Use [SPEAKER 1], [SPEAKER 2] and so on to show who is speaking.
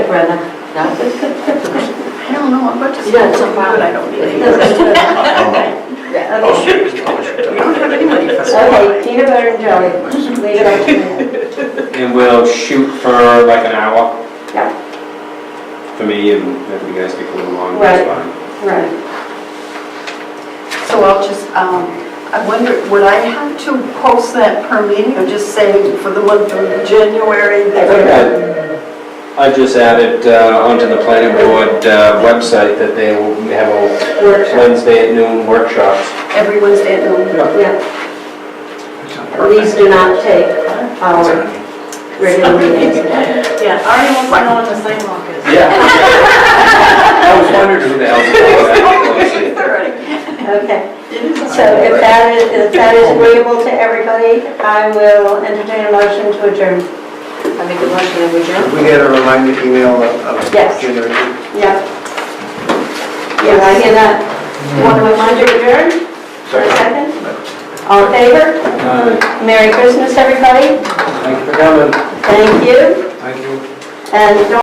[SPEAKER 1] Brenda. No?
[SPEAKER 2] I don't know, I'm about to.
[SPEAKER 1] You got some problem.
[SPEAKER 2] But I don't need any.
[SPEAKER 1] Yeah, okay.
[SPEAKER 3] Oh, shit, it's college.
[SPEAKER 2] I don't have any money for
[SPEAKER 1] Okay,
[SPEAKER 2] that.
[SPEAKER 1] peanut butter and jelly. Later.
[SPEAKER 4] And we'll shoot for like an hour
[SPEAKER 1] Yeah,
[SPEAKER 4] for me, and if you guys take a little longer,
[SPEAKER 1] Right.
[SPEAKER 4] that's fine.
[SPEAKER 1] right.
[SPEAKER 2] So I'll just, um, I wonder, would I have to post that per meeting or just say for the month of January?
[SPEAKER 4] I think I, I just added uh, onto the planning board uh, website that they will have a
[SPEAKER 1] Workshop,
[SPEAKER 4] Wednesday at noon workshops.
[SPEAKER 2] Every Wednesday at noon?
[SPEAKER 1] yeah. These do not take our regular meetings.
[SPEAKER 2] Yeah, I already went on the sidewalk.
[SPEAKER 4] Yeah. I was wondering who the hell's calling that.
[SPEAKER 2] Already.
[SPEAKER 1] Okay. So if that is, if that is agreeable to everybody, I will entertain a motion to adjourn. I make a motion to adjourn?
[SPEAKER 3] We get a reminder email of of
[SPEAKER 1] Yes.
[SPEAKER 3] January.
[SPEAKER 1] Yeah. Yeah, I hear that. You want to remind you to adjourn for a second? All in favor?
[SPEAKER 4] Uh,
[SPEAKER 1] Merry Christmas, everybody.
[SPEAKER 4] Thank you for coming.
[SPEAKER 1] Thank you.
[SPEAKER 4] Thank you.
[SPEAKER 1] And don't